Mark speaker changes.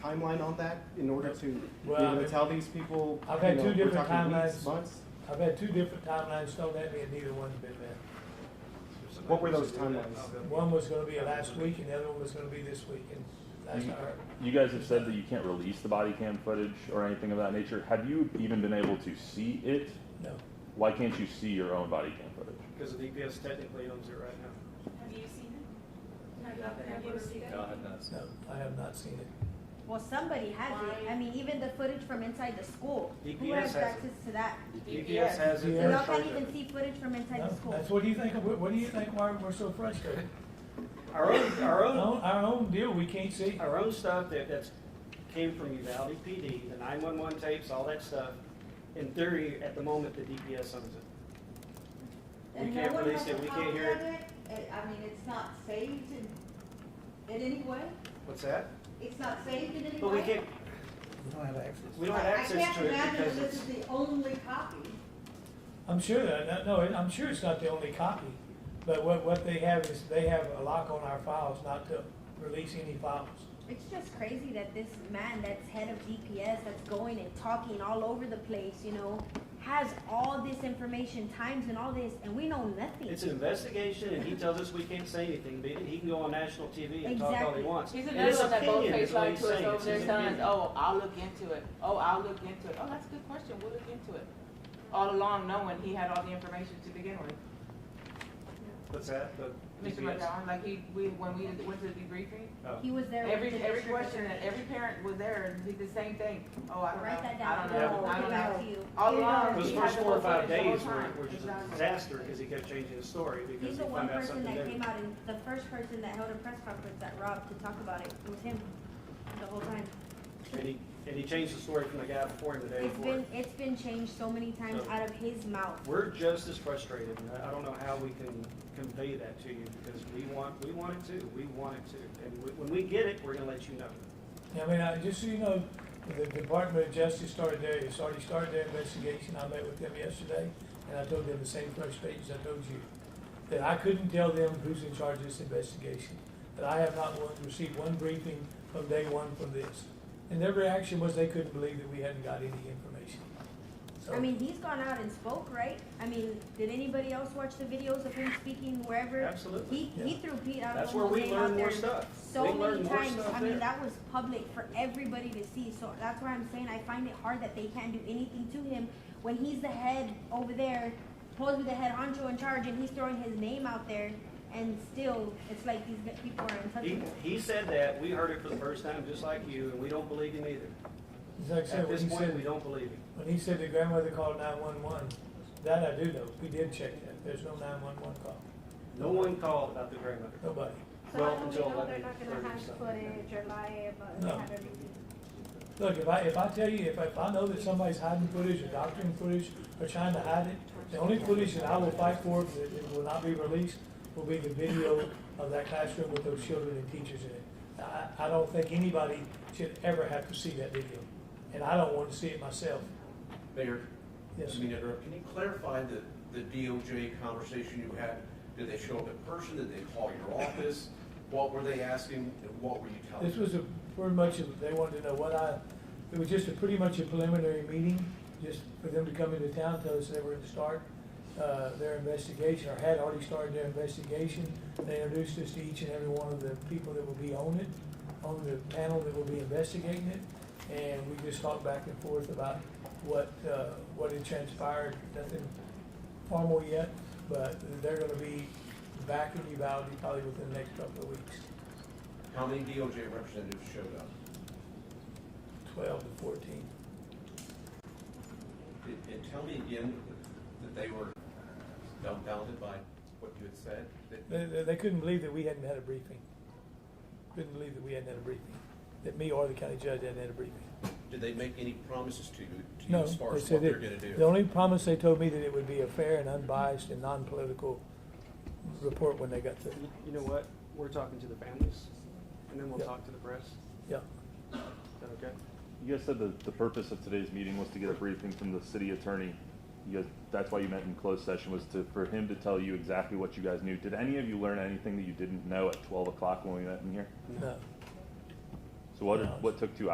Speaker 1: timeline on that in order to, be
Speaker 2: Well, I
Speaker 1: able to
Speaker 2: mean,
Speaker 1: tell these people?
Speaker 2: I've
Speaker 1: you
Speaker 2: had
Speaker 1: know,
Speaker 2: two
Speaker 1: we're
Speaker 2: different
Speaker 1: talking weeks,
Speaker 2: timelines.
Speaker 1: Months?
Speaker 2: I've had two different timelines thrown at me and neither one's been met.
Speaker 1: What were those timelines?
Speaker 2: One was gonna be last week and the other one was gonna be this week and that's
Speaker 3: Mm-hmm.
Speaker 4: You-
Speaker 2: not her.
Speaker 4: You guys have said that you can't release the body cam footage or anything of that nature. Have you even been able to see it?
Speaker 2: No.
Speaker 4: Why can't you see your own body cam footage?
Speaker 5: Because the DPS technically owns it right now.
Speaker 6: Have you seen it? Have you, have you seen it?
Speaker 7: No, I have not seen
Speaker 2: No, I have not seen it.
Speaker 8: Well, somebody has it. I mean, even the footage from inside the school. Who
Speaker 5: DPS
Speaker 8: has
Speaker 5: has
Speaker 8: access to that?
Speaker 9: E
Speaker 5: DPS E has it.
Speaker 2: Yeah.
Speaker 8: So
Speaker 5: they're
Speaker 8: y'all
Speaker 5: in charge
Speaker 8: can't
Speaker 5: of
Speaker 8: even
Speaker 5: it.
Speaker 8: see footage from inside the
Speaker 2: No,
Speaker 8: school.
Speaker 2: that's what do you think, what, what do you think, why we're so frustrated?
Speaker 5: Our own, our
Speaker 2: Our
Speaker 5: own,
Speaker 2: own, our own deal, we can't see.
Speaker 5: our own stuff that, that's, came from Uvalde PD, the nine-one-one tapes, all that stuff. In theory, at the moment, the DPS owns it. We
Speaker 9: And no
Speaker 5: can't
Speaker 9: one
Speaker 5: release
Speaker 9: has
Speaker 5: it,
Speaker 9: a
Speaker 5: we can't
Speaker 9: copy
Speaker 5: hear
Speaker 9: of It- I mean, it's not saved in, in any way?
Speaker 5: What's that?
Speaker 9: It's not saved in any way?
Speaker 5: But we can't,
Speaker 3: We don't have access.
Speaker 5: we don't have
Speaker 9: I-
Speaker 5: access to it
Speaker 9: I can't
Speaker 5: because
Speaker 9: imagine that this
Speaker 5: it's,
Speaker 9: is the only copy.
Speaker 2: I'm sure that, that- no, I'm sure it's not the only copy, but what, what they have is, they have a lock on our files not to release any files.
Speaker 8: It's just crazy that this man that's head of DPS that's going and talking all over the place, you know, has all this information, times and all this, and we know nothing.
Speaker 5: it's an investigation and he tells us we can't say anything, but he can go on national TV and talk all he
Speaker 8: Exactly.
Speaker 5: wants.
Speaker 10: He's
Speaker 5: And
Speaker 10: another
Speaker 5: his
Speaker 10: one that both
Speaker 5: opinion
Speaker 10: face
Speaker 5: is what
Speaker 10: like
Speaker 5: he's
Speaker 10: to us
Speaker 5: saying,
Speaker 10: over
Speaker 5: it's
Speaker 10: their
Speaker 5: his
Speaker 10: sons,
Speaker 5: opinion.
Speaker 10: oh, I'll look into it, oh, I'll look into it, oh, that's a good question, we'll look into it. All along knowing he had all the information to begin with.
Speaker 5: What's that? The
Speaker 10: Mr.
Speaker 5: DPS?
Speaker 10: McDonald, like he, we, when we went to the debriefing,
Speaker 5: Oh.
Speaker 8: He was there. with
Speaker 10: every,
Speaker 8: the
Speaker 10: every
Speaker 8: district
Speaker 10: question that every parent was there, and did the same thing, oh, I don't know,
Speaker 8: Write that
Speaker 10: I
Speaker 8: down.
Speaker 10: don't know,
Speaker 8: We'll
Speaker 10: I
Speaker 8: get
Speaker 10: don't
Speaker 8: back
Speaker 10: know.
Speaker 8: to you.
Speaker 10: All along,
Speaker 5: Those
Speaker 10: he had
Speaker 5: first
Speaker 10: the
Speaker 5: four or
Speaker 10: whole
Speaker 5: five
Speaker 10: footage the whole
Speaker 5: days were,
Speaker 10: time.
Speaker 5: were just a
Speaker 10: Exactly.
Speaker 5: disaster because he kept changing his story because
Speaker 8: He's
Speaker 5: he
Speaker 8: the one
Speaker 5: found out
Speaker 8: person
Speaker 5: something
Speaker 8: that came
Speaker 5: different.
Speaker 8: out and the first person that held a press conference that Rob to talk about it. It was him the whole time.
Speaker 5: And he, and he changed the story from the guy before him the day
Speaker 8: It's
Speaker 5: before.
Speaker 8: been, it's been changed so many times
Speaker 5: So-
Speaker 8: out of his mouth.
Speaker 5: We're just as frustrated. and I I don't know how we can convey that to you because we want, we want it too. We want it too. And we- when we get it, we're gonna let you know.
Speaker 2: I mean, I, just so you know, the Department of Justice started their, it's already started their investigation, I met with them yesterday, and I told them the same frustrations I told you. That I couldn't tell them who's in charge of this investigation, that I have not one- received one briefing from day one from this. And their reaction was they couldn't believe that we hadn't got any information. So-
Speaker 8: I mean, he's gone out and spoke, right? I mean, did anybody else watch the videos of him speaking wherever?
Speaker 5: Absolutely.
Speaker 8: He, he threw Pete out
Speaker 5: That's
Speaker 8: of
Speaker 5: where
Speaker 8: almost
Speaker 5: we
Speaker 8: name out
Speaker 5: learn more
Speaker 8: there
Speaker 5: stuff. We
Speaker 8: so
Speaker 5: learn
Speaker 8: many
Speaker 5: more
Speaker 8: times.
Speaker 5: stuff
Speaker 8: I
Speaker 5: there.
Speaker 8: mean, that was public for everybody to see. So that's why I'm saying I find it hard that they can't do anything to him when he's the head over there, supposed to be the head honcho in charge, and he's throwing his name out there, and still, it's like these people are
Speaker 5: He,
Speaker 8: untouchable.
Speaker 5: he said that. We heard it for the first time, just like you, and we don't believe him either.
Speaker 2: It's like I said,
Speaker 5: At
Speaker 2: when
Speaker 5: this
Speaker 2: he
Speaker 5: point,
Speaker 2: said-
Speaker 5: we don't believe him.
Speaker 2: When he said the grandmother called nine-one-one, that I do know, we did check that, there's no nine-one-one call,
Speaker 5: No one called about the grandmother.
Speaker 2: nobody.
Speaker 6: So
Speaker 5: Well,
Speaker 6: how do we
Speaker 5: until
Speaker 6: know they're
Speaker 5: 11,
Speaker 6: not gonna
Speaker 5: 30
Speaker 6: have
Speaker 5: something.
Speaker 6: footage or lie about,
Speaker 2: No.
Speaker 6: have everything?
Speaker 2: Look, if I, if I tell you, if I, if I know that somebody's hiding footage or doctoring footage or trying to hide it, the only footage that I will fight for that it will not be released will be the video of that classroom with those children and teachers in it. I, I don't think anybody should ever have to see that video, and I don't want to see it myself.
Speaker 11: Mayor,
Speaker 2: Yes,
Speaker 11: I mean, interrupt. can you clarify the, the DOJ conversation you had? Did they show up in person? Did they call your office? What were they asking and what were you telling?
Speaker 2: This was a, pretty much, a- they wanted to know what I, it was just a, pretty much a preliminary meeting, just for them to come into town, tell us they were gonna start, uh, their investigation, or had already started their investigation. They introduced us to each and every one of the people that will be on it, on the panel that will be investigating it. And we just talked back and forth about what, uh, what had transpired, nothing formal yet, but they're gonna be back in Uvalde probably within the next couple of weeks,
Speaker 11: How many DOJ representatives showed up?
Speaker 2: twelve to fourteen.
Speaker 11: And and tell me again that they were dumbfounded by what you had said? that-
Speaker 2: They, they they couldn't believe that we hadn't had a briefing. Couldn't believe that we hadn't had a briefing, that me or the county judge hadn't had a briefing.
Speaker 11: Did they make any promises to you, to you
Speaker 2: No,
Speaker 11: as far
Speaker 2: they
Speaker 11: as what
Speaker 2: said
Speaker 11: they're
Speaker 2: that,
Speaker 11: gonna do?
Speaker 2: the only promise they told me that it would be a fair and unbiased and non-political report when they got through.
Speaker 5: You- You know what? We're talking to the families, and then we'll
Speaker 2: Yeah.
Speaker 5: talk to the press.
Speaker 2: Yeah,
Speaker 5: Is that okay?
Speaker 4: You guys said that the purpose of today's meeting was to get a briefing from the city attorney. You guys, that's why you met in closed session was to, for him to tell you exactly what you guys knew. Did any of you learn anything that you didn't know at twelve o'clock when we met in here?
Speaker 2: no.
Speaker 4: So what,
Speaker 2: No.
Speaker 4: what took two